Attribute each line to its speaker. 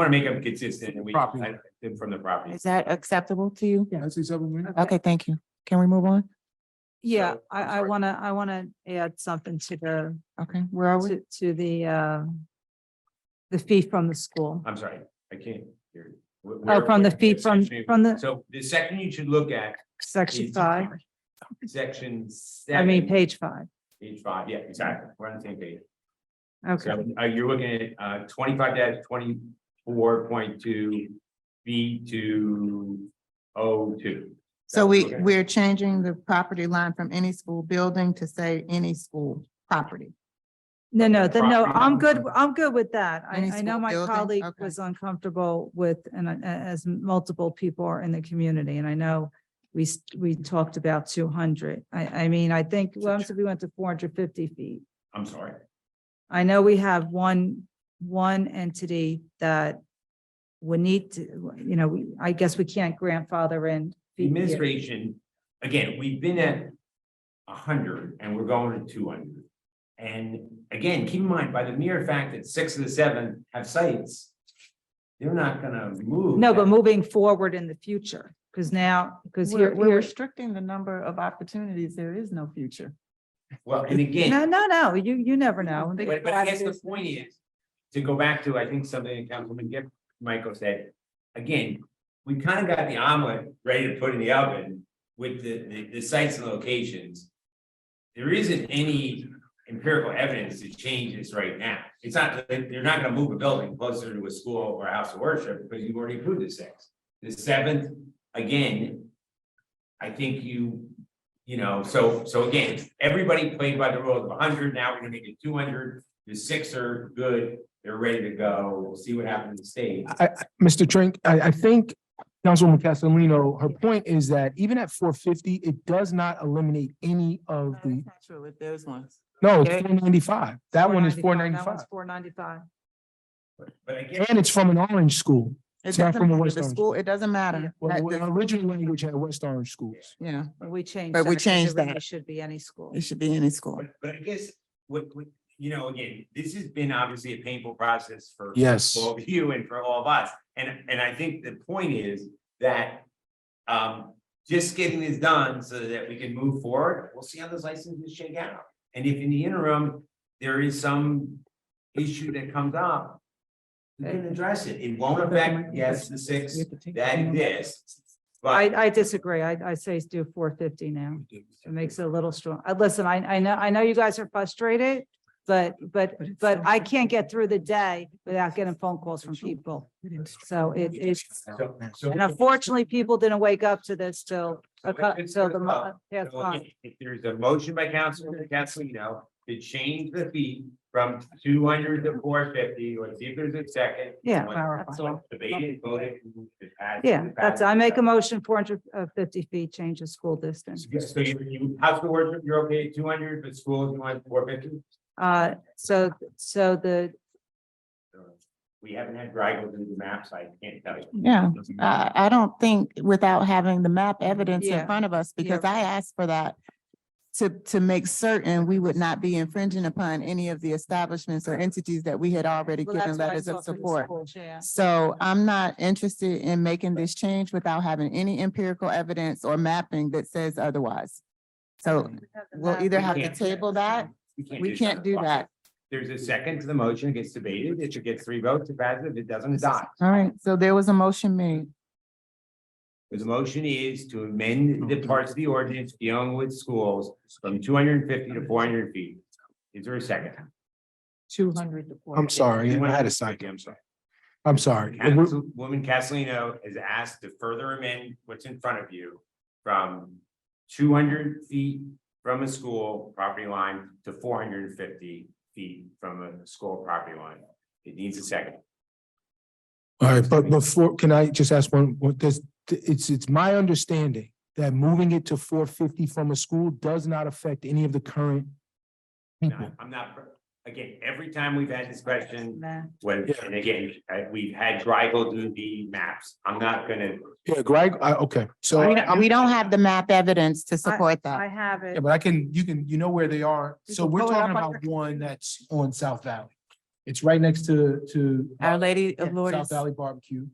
Speaker 1: want to make them consistent and we,
Speaker 2: Property.
Speaker 1: I- from the property.
Speaker 3: Is that acceptable to you?
Speaker 2: Yeah, I see something.
Speaker 3: Okay, thank you. Can we move on?
Speaker 4: Yeah,
Speaker 1: So, I'm
Speaker 4: I, I
Speaker 1: sorry.
Speaker 4: wanna, I wanna add something to the,
Speaker 3: Okay, where are we?
Speaker 4: to, to the, uh, the fee from the school.
Speaker 1: I'm sorry, I can't hear. you. Where-
Speaker 4: Oh,
Speaker 1: Uh, where-
Speaker 4: from the
Speaker 1: where-
Speaker 4: fee,
Speaker 1: what
Speaker 4: from,
Speaker 1: section you-
Speaker 4: from the
Speaker 1: So the section you should look at,
Speaker 4: section
Speaker 1: is-
Speaker 4: five,
Speaker 1: section
Speaker 4: I mean,
Speaker 1: seven,
Speaker 4: page five.
Speaker 1: page five, yeah, exactly, we're on the same page.
Speaker 4: Okay,
Speaker 1: So uh, you're looking at twenty-five twenty-four point two B two oh two.
Speaker 3: So we,
Speaker 1: Okay.
Speaker 3: we're changing the property line from any school building to say any school property.
Speaker 4: no, no, the, no,
Speaker 1: Property
Speaker 4: I'm good,
Speaker 1: owner.
Speaker 4: I'm good with that. I,
Speaker 3: Any
Speaker 4: I know
Speaker 3: school
Speaker 4: my
Speaker 3: building?
Speaker 4: colleague
Speaker 3: Okay.
Speaker 4: was uncomfortable with, and uh, as multiple people are in the community, and I know we, s- we talked about two hundred. I, I mean, I think, well, we went to four hundred fifty feet.
Speaker 1: I'm sorry,
Speaker 4: I know we have one, one entity that would need to, you know, we- I guess we can't grandfather in.
Speaker 1: the
Speaker 4: fee here.
Speaker 1: administration, again, we've been at hundred and we're going to two hundred. And again, keep in mind, by the mere fact that six of the seven have sites, they're not gonna move.
Speaker 4: No, but
Speaker 1: that.
Speaker 4: moving forward in the future, because now, because here, here,
Speaker 3: restricting the number of opportunities. There is no future.
Speaker 1: Well, and again.
Speaker 4: no, no, no, you, you never know.
Speaker 1: But but I guess the point is, to go back to, I think something that Councilman Giff, Michael said, again, we kind of got the omelet ready to put in the oven with the, the, the sites and locations. There isn't any empirical evidence to change this right now. It's not, they're not gonna move a building closer to a school or a house of worship, because you've already approved the sixth. The seventh, again, I think you, you know, so, so again, everybody played by the rules of hundred, now we're gonna make it two hundred. The six are good, they're ready to go, we'll see what happens in the state.
Speaker 2: I, I- Mr. Trink, I, I think Councilwoman Castellino, her point is that even at four fifty, it does not eliminate any of the,
Speaker 3: True, if there's one.
Speaker 2: no, it's four ninety-five. That one is four ninety-five.
Speaker 4: Four ninety-five.
Speaker 1: But again,
Speaker 2: And it's from an orange school.
Speaker 3: It
Speaker 2: It's not
Speaker 3: doesn't
Speaker 2: from a
Speaker 3: matter.
Speaker 2: West
Speaker 3: The
Speaker 2: Orange.
Speaker 3: school, it doesn't matter.
Speaker 2: Well,
Speaker 3: That-
Speaker 2: the
Speaker 3: that-
Speaker 2: original language had West Orange schools.
Speaker 3: Yeah,
Speaker 4: We changed.
Speaker 3: But we
Speaker 4: that, 'cause it
Speaker 3: changed
Speaker 4: really
Speaker 3: that.
Speaker 4: Should be any school.
Speaker 3: it should be any school.
Speaker 1: but, but I guess, what, what, you know, again, this has been obviously a painful process for.
Speaker 2: Yes.
Speaker 1: all of you and for all of us. And, and I think the point is that, um, just getting this done so that we can move forward, we'll see how those licenses shake out. And if in the interim, there is some issue that comes up, we can address it. It won't affect, yes, the six that exists, but.
Speaker 4: I, I disagree. I, I say do four fifty now. It makes it a little strong. Uh, listen, I, I know, I know you guys are frustrated, but, but, but I can't get through the day without getting phone calls from people. So it is,
Speaker 1: So- so-
Speaker 4: and unfortunately, people didn't wake up to this till, a cou-
Speaker 1: It's
Speaker 4: till
Speaker 1: good
Speaker 4: the
Speaker 1: stuff.
Speaker 4: month. past
Speaker 1: So
Speaker 4: month.
Speaker 1: If if there's a motion by Councilman Castellino to change the fee from two hundred to four fifty, or see if there's a second.
Speaker 4: Yeah,
Speaker 1: Once-
Speaker 4: that's all.
Speaker 1: once Debated, voted. and it passed,
Speaker 4: Yeah,
Speaker 1: it
Speaker 4: that's,
Speaker 1: passed.
Speaker 4: I make a motion, four hundred uh, fifty feet change of school distance.
Speaker 1: So you, you, house of worship, you're okay at two hundred, but schools, you want four fifty?
Speaker 4: Uh, so, so the,
Speaker 1: We haven't had Grego do the maps, I can't tell you.
Speaker 3: Yeah. I, I don't think without having the map evidence
Speaker 4: Yeah.
Speaker 3: in front of us, because
Speaker 4: Yeah.
Speaker 3: I asked for that to, to make certain we would not be infringing upon any of the establishments or entities that we had already
Speaker 4: well, that's
Speaker 3: given
Speaker 4: what I
Speaker 3: letters
Speaker 4: saw
Speaker 3: of
Speaker 4: for the
Speaker 3: support.
Speaker 4: schools, Yeah.
Speaker 3: So I'm not interested in making this change without having any empirical evidence or mapping that says otherwise. So we'll either
Speaker 1: We
Speaker 3: have to
Speaker 1: can't do that.
Speaker 3: table that, we can't do that.
Speaker 1: There's a second to the motion, it gets debated, it should get three votes, if it it doesn't, it dies.
Speaker 3: All right, so there was a motion made.
Speaker 1: The motion is to amend the parts of the ordinance, the Youngwood schools from two hundred and fifty to four hundred feet. Is there a second?
Speaker 3: Two hundred.
Speaker 2: I'm sorry. I had a
Speaker 1: second.
Speaker 2: second.
Speaker 1: I'm sorry.
Speaker 2: I'm sorry.
Speaker 1: Councilwoman Castellino is asked to further amend what's in front of you from two hundred feet from a school property line to four hundred and fifty feet from a school property line. It needs a second.
Speaker 2: All right, but before, can I just ask one, what does, it's, it's my understanding that moving it to four fifty from a school does not affect any of the current people.
Speaker 1: Now, I'm not, again, every time we've had this question,
Speaker 4: Nah.
Speaker 1: When,
Speaker 2: Yeah.
Speaker 1: and again, I- we've had Drygel do the maps. I'm not gonna,
Speaker 2: Yeah, Greg, I, okay, so.
Speaker 3: We don't, we don't have the map evidence to support that.
Speaker 4: I have
Speaker 2: Yeah,
Speaker 4: it.
Speaker 2: but I can, you can, you know where they are.
Speaker 4: You
Speaker 2: So
Speaker 4: can
Speaker 2: we're
Speaker 4: pull it up
Speaker 2: talking
Speaker 4: on
Speaker 2: about one that's on South Valley. It's right next to, to.
Speaker 3: Our Lady
Speaker 2: uh,
Speaker 3: of Lourdes.
Speaker 2: South Valley Barbecue.